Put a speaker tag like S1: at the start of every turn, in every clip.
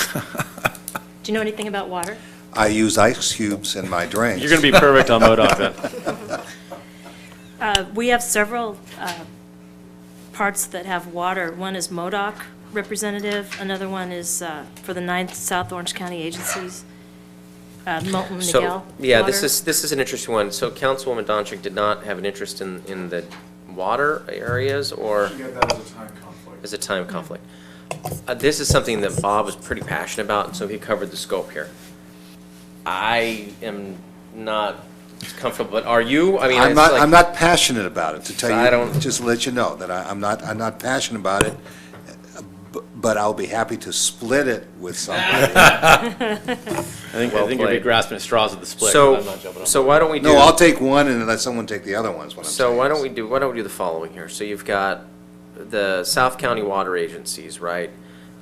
S1: Do you know anything about water?
S2: I use ice cubes in my drinks.
S3: You're going to be perfect on MODOC then.
S1: Uh, We have several uh, parts that have water. One is MODOC representative, another one is uh, for the ninth South Orange County agencies, uh, Moulton
S4: So,
S1: Miguel.
S4: yeah, this
S1: Water.
S4: is, this is an interesting one. So Councilwoman Donchik did not have an interest in, in the water areas or
S5: Yeah, that was a time conflict.
S4: as a time conflict. Uh, This is something that Bob was pretty passionate about, and so he covered the scope here. I am not comfortable, but are you? I mean,
S2: I'm
S4: it's
S2: not, I'm
S4: like,
S2: not passionate about it, to tell
S4: I
S2: you,
S4: don't-
S2: just to let you know, that I, I'm not, I'm not passionate about it, bu- but I'll be happy to split it with somebody.
S3: I think, I
S4: Well
S3: think you'll be
S4: played.
S3: grasping at straws at the split, but I'm not jumping
S4: so,
S3: on.
S4: so why don't we do?
S2: No, I'll take one and let someone take the other one, is what I'm saying.
S4: So why don't we do, why don't we do the following here? So you've got the South County Water Agencies, right?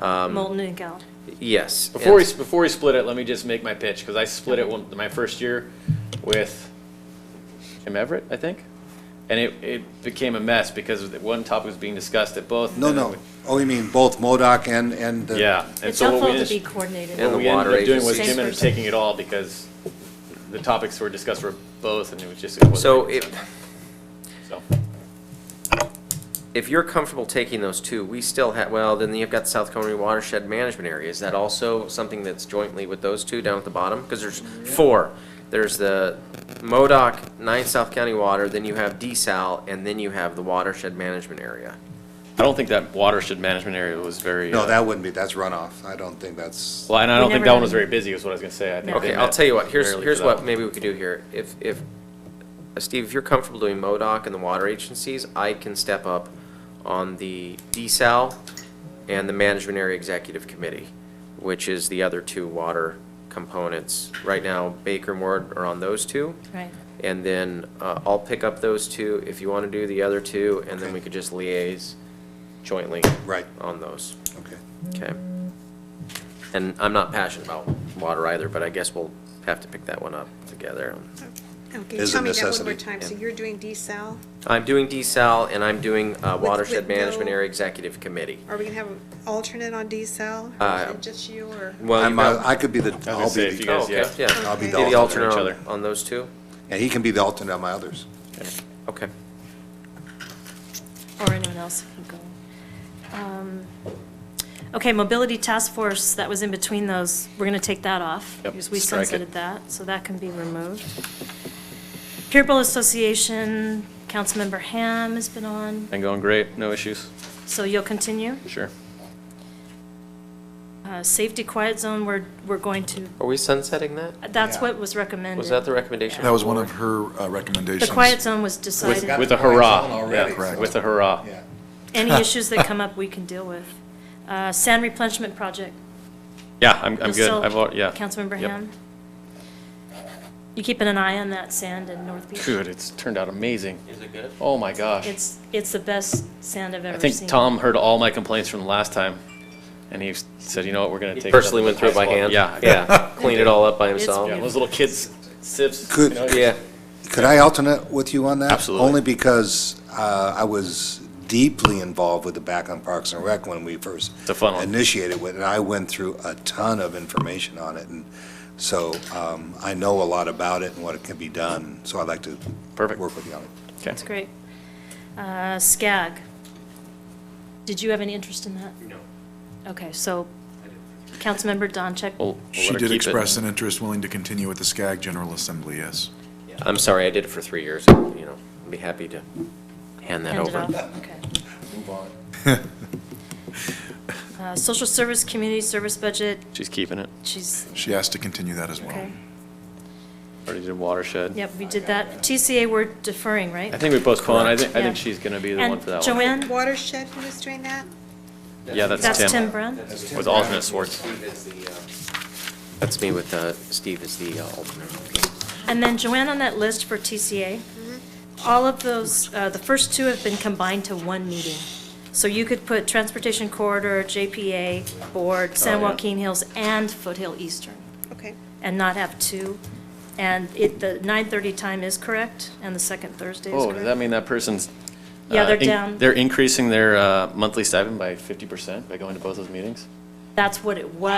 S4: um,
S1: Moulton Miguel.
S4: Yes.
S3: Before we,
S4: and-
S3: before we split it, let me just make my pitch, because I split it one, my first year with Jim Everett, I think. And it, it became a mess because one topic was being discussed at both.
S2: No,
S3: and
S2: no, oh, you mean both MODOC and, and the.
S3: Yeah. and
S1: It's
S3: so what we
S1: helpful to
S3: ended-
S1: be coordinated.
S4: And
S3: What
S4: the
S3: we ended
S4: water
S3: up doing was
S1: agencies.
S3: Jim ended up
S1: Same person.
S3: taking it all because the topics were discussed were both, and it was just. it wasn't
S4: So
S3: making
S4: if,
S3: sense. So,
S4: if you're comfortable taking those two, we still have, well, then you've got South County Watershed Management Area. Is that also something that's jointly with those two down at the bottom? Because there's four. There's the MODOC, nine South County Water, then you have DSAL, and then you have the Watershed Management Area.
S3: I don't think that watershed management area was very. uh,
S2: No, that wouldn't be, that's runoff, I don't think that's,
S3: Well, and I
S1: We
S3: don't think
S1: never
S3: that
S1: had-
S3: one was very busy, is what I was gonna say. I think they
S4: Okay, I'll
S3: met
S4: tell you what, here's,
S3: rarely for
S4: here's
S3: that
S4: what
S3: one.
S4: maybe we could do here. If, if, uh, Steve, if you're comfortable doing MODOC and the water agencies, I can step up on the DSAL and the Management Area Executive Committee, which is the other two water components. Right now, Baker and Ward are on those two,
S1: Right.
S4: and then uh, I'll pick up those two if you want to do the other two, and then we could just liaise jointly
S2: right,
S4: on those.
S2: okay.
S4: Okay. And I'm not passionate about water either, but I guess we'll have to pick that one up together.
S6: Okay,
S2: Is a
S6: tell me that one
S2: necessity.
S6: more time. So you're doing desal?
S4: I'm doing desal and I'm doing uh,
S6: With-
S4: Watershed
S6: with no-
S4: Management Area Executive Committee.
S6: Are we gonna have an alternate on desal?
S4: Uh,
S6: Or is it just you or?
S4: Well,
S2: I'm,
S4: you
S2: uh,
S4: got-
S2: I could be the,
S3: I
S2: I'll
S3: was gonna say,
S2: be
S3: if
S2: the,
S3: you guys,
S4: Okay,
S3: yeah.
S4: yeah.
S2: I'll be
S4: Be
S2: the
S4: the alternate
S3: alternate each
S4: on
S3: other.
S4: on those two?
S2: and he can be the alternate on my others.
S4: Okay.
S1: or anyone else can go. Um, Okay, Mobility Task Force, that was in between those, we're going to take that off.
S3: Yep,
S1: Because we
S3: strike it.
S1: sunsetted that, so that can be removed. Peer Bowl Association, Councilmember Ham has been on,
S3: Been going great, no issues,
S1: so you'll continue.
S3: sure.
S1: Uh, Safety Quiet Zone, we're, we're going to,
S4: Are we sunsetting that?
S1: that's what was recommended.
S4: Was that the recommendation?
S1: Yeah.
S5: That was one of her uh,
S1: The
S5: recommendations.
S1: Quiet Zone was decided.
S3: With a hurrah, yeah, with a hurrah.
S2: Yeah.
S1: Any issues that come up, we can deal with. Uh, Sand Replenishment Project,
S3: Yeah, I'm, I'm
S1: You'll
S3: good,
S1: still-
S3: I've, al- yeah.
S1: Councilmember
S3: Yep.
S1: Ham? You keeping an eye on that sand in North Beach?
S3: Good, it's turned out amazing.
S4: Is it good?
S3: Oh my gosh.
S1: It's, it's the best sand I've
S3: I
S1: ever seen.
S3: think Tom heard all my complaints from the last time, and he said, you know what, we're gonna take. it up
S4: Personally
S3: to
S4: went
S3: the
S4: through it by
S3: highest
S4: hand?
S3: level." Yeah. I got it.
S4: Yeah, cleaned it all up by
S1: It's
S4: himself.
S3: Yeah, those little kids sips.
S2: Good.
S3: you know,
S4: Yeah.
S2: Could I alternate with you on that?
S3: Absolutely.
S2: Only because uh, I was deeply involved with the back on Parks and Rec when we first
S3: It's a fun one.
S2: initiated with it, and I went through a ton of information on it, and so um, I know a lot about it and what it can be done, so I'd like to
S3: Perfect.
S2: work with you on it.
S3: Okay.
S1: It's great. Uh, SCAG. Did you have any interest in that? No. Okay, so, Councilmember Doncheck?
S3: We'll- we'll let
S5: She
S3: her
S5: did
S3: keep it.
S5: express an interest willing to continue with the SCAG General Assembly, yes.
S4: I'm sorry, I did it for three years, you know, I'd be happy to hand that
S1: Hand it
S4: over.
S1: off, okay. Uh, Social service, community service budget,
S3: She's keeping it.
S1: she's,
S5: She asked to continue that as well.
S1: okay.
S3: Already did watershed.
S1: Yep, we did that. TCA, we're deferring, right?
S3: I think we postponed. I think, I think
S1: Yeah.
S3: she's gonna be the one for that
S1: And
S3: one.
S1: Joanne?
S6: Watershed, who was doing that?
S3: Yeah, that's
S1: That's Tim
S3: Tim.
S1: Brown?
S3: With alternate Swartz.
S4: That's me with, uh, Steve as the uh, alternate.
S1: And then Joanne on that list for TCA,
S3: Mm-hmm.
S1: all of those, uh, the first two have been combined to one meeting. So you could put Transportation Corridor, JPA, Board, San
S3: Oh, yeah.
S1: Joaquin Hills, and Foothill Eastern,
S6: Okay.
S1: and not have two. And it, the 9:30 time is correct, and the second Thursday is
S3: Oh, does that
S1: correct.
S3: mean that person's?
S1: Yeah,
S3: uh,
S1: they're
S3: in-
S1: down.
S3: They're increasing their uh, monthly stipend by fifty percent by going to both those meetings?
S1: That's what it was.